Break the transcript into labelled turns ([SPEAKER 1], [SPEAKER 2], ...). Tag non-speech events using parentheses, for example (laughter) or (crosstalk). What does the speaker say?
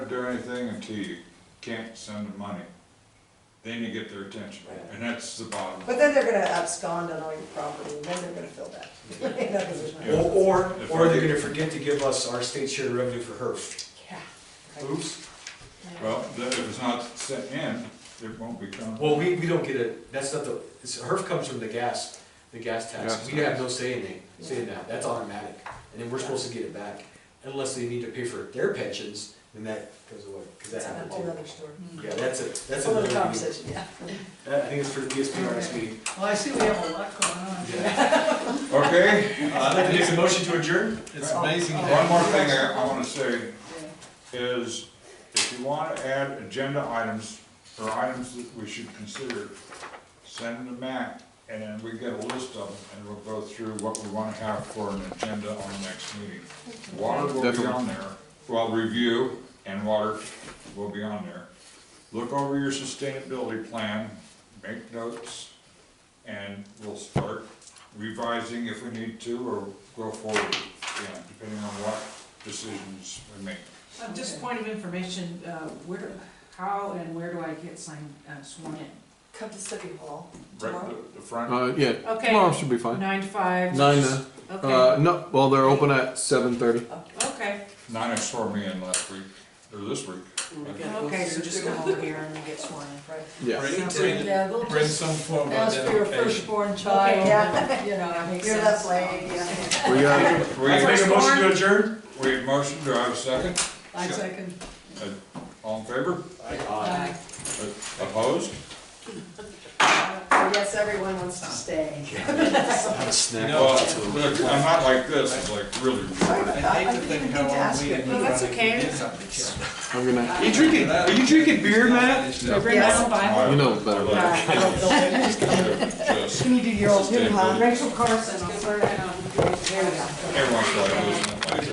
[SPEAKER 1] do anything until you can't send them money. Then you get their attention, and that's the bottom.
[SPEAKER 2] But then they're gonna abscond on all your property, and then they're gonna fill that. (laughs) You know, 'cause there's no-
[SPEAKER 1] Yeah.
[SPEAKER 3] Or,
[SPEAKER 1] If
[SPEAKER 3] or
[SPEAKER 1] I
[SPEAKER 3] they're
[SPEAKER 1] could-
[SPEAKER 3] gonna forget to give us our state share of revenue for HERF.
[SPEAKER 2] Yeah.
[SPEAKER 3] Oops.
[SPEAKER 1] Well, the- if it's not sent in, it won't be counted.
[SPEAKER 3] Well, we, we don't get it, that's not the, it's, HERF comes from the gas, the gas tax.
[SPEAKER 4] Gas
[SPEAKER 3] We have no say in it, say in that, that's automatic. And then we're supposed to get it back, unless they need to pay for their pensions, then that goes away, cause that
[SPEAKER 2] That's a
[SPEAKER 3] happened
[SPEAKER 2] whole
[SPEAKER 3] too.
[SPEAKER 2] other story.
[SPEAKER 3] Yeah, that's it, that's
[SPEAKER 2] Whole
[SPEAKER 3] another
[SPEAKER 2] other
[SPEAKER 3] meeting.
[SPEAKER 2] conversation, yeah.
[SPEAKER 3] That- I think it's for E the BSP next meeting.
[SPEAKER 5] Well, I see we have a lot going on.
[SPEAKER 3] Yeah.
[SPEAKER 1] Okay,
[SPEAKER 3] Uh, I'd like to make a motion to adjourn.
[SPEAKER 5] It's amazing.
[SPEAKER 1] one more thing I, I wanna say is, if you wanna add agenda items, or items that we should consider, send them back, and then we get a list of them, and we'll go through what we wanna have for an agenda on the next meeting. Water will be
[SPEAKER 4] Definitely.
[SPEAKER 1] on there, well, review and water will be on there. Look over your sustainability plan, make notes, and we'll start revising if we need to, or go forward, yeah, depending on what decisions we make.
[SPEAKER 6] Uh, Just point of information, uh, where, how and where do I get signed, uh, sworn in?
[SPEAKER 2] Come to City Hall
[SPEAKER 1] Right,
[SPEAKER 2] tomorrow.
[SPEAKER 1] the- the front,
[SPEAKER 4] Uh, yeah,
[SPEAKER 6] Okay.
[SPEAKER 4] tomorrow should be fine.
[SPEAKER 6] Nine to five?
[SPEAKER 4] Nine. Uh,
[SPEAKER 6] Okay,
[SPEAKER 4] uh, no, well, they're open at seven thirty.
[SPEAKER 6] okay,
[SPEAKER 1] Nina swore me in last week, or this week.
[SPEAKER 6] okay, so just come over here and get sworn in.
[SPEAKER 2] Right.
[SPEAKER 4] Yeah.
[SPEAKER 7] Bring,
[SPEAKER 6] Sounds
[SPEAKER 7] bring,
[SPEAKER 5] Yeah, we'll
[SPEAKER 7] bring
[SPEAKER 5] just
[SPEAKER 7] some form of
[SPEAKER 5] ask for your
[SPEAKER 7] identification.
[SPEAKER 5] firstborn
[SPEAKER 2] Okay,
[SPEAKER 5] child,
[SPEAKER 2] yeah.
[SPEAKER 5] and, you know, I mean.
[SPEAKER 2] You're that lady, yeah.
[SPEAKER 4] We got
[SPEAKER 1] We,
[SPEAKER 3] I'd like to make a motion to adjourn.
[SPEAKER 1] we have motion, do I have a second?
[SPEAKER 5] I second.
[SPEAKER 1] All in favor?
[SPEAKER 3] oh,
[SPEAKER 5] Aye.
[SPEAKER 1] Opposed?
[SPEAKER 2] I guess everyone wants to stay.
[SPEAKER 3] Have a snack.
[SPEAKER 1] Well, look, I'm not like this, it's like really.
[SPEAKER 7] I hate to think how long we.
[SPEAKER 2] it.
[SPEAKER 6] No, (laughs) that's okay.
[SPEAKER 4] I'm gonna.
[SPEAKER 7] You drinking,
[SPEAKER 3] are you drinking beer, Matt?
[SPEAKER 7] Matt?
[SPEAKER 6] Bring
[SPEAKER 2] Yes.
[SPEAKER 6] down five.
[SPEAKER 4] You know better.
[SPEAKER 1] Just
[SPEAKER 2] Can you do your old
[SPEAKER 1] new, huh?
[SPEAKER 2] Rachel Carson, I'm sorry.
[SPEAKER 1] Everyone's like, listen, like.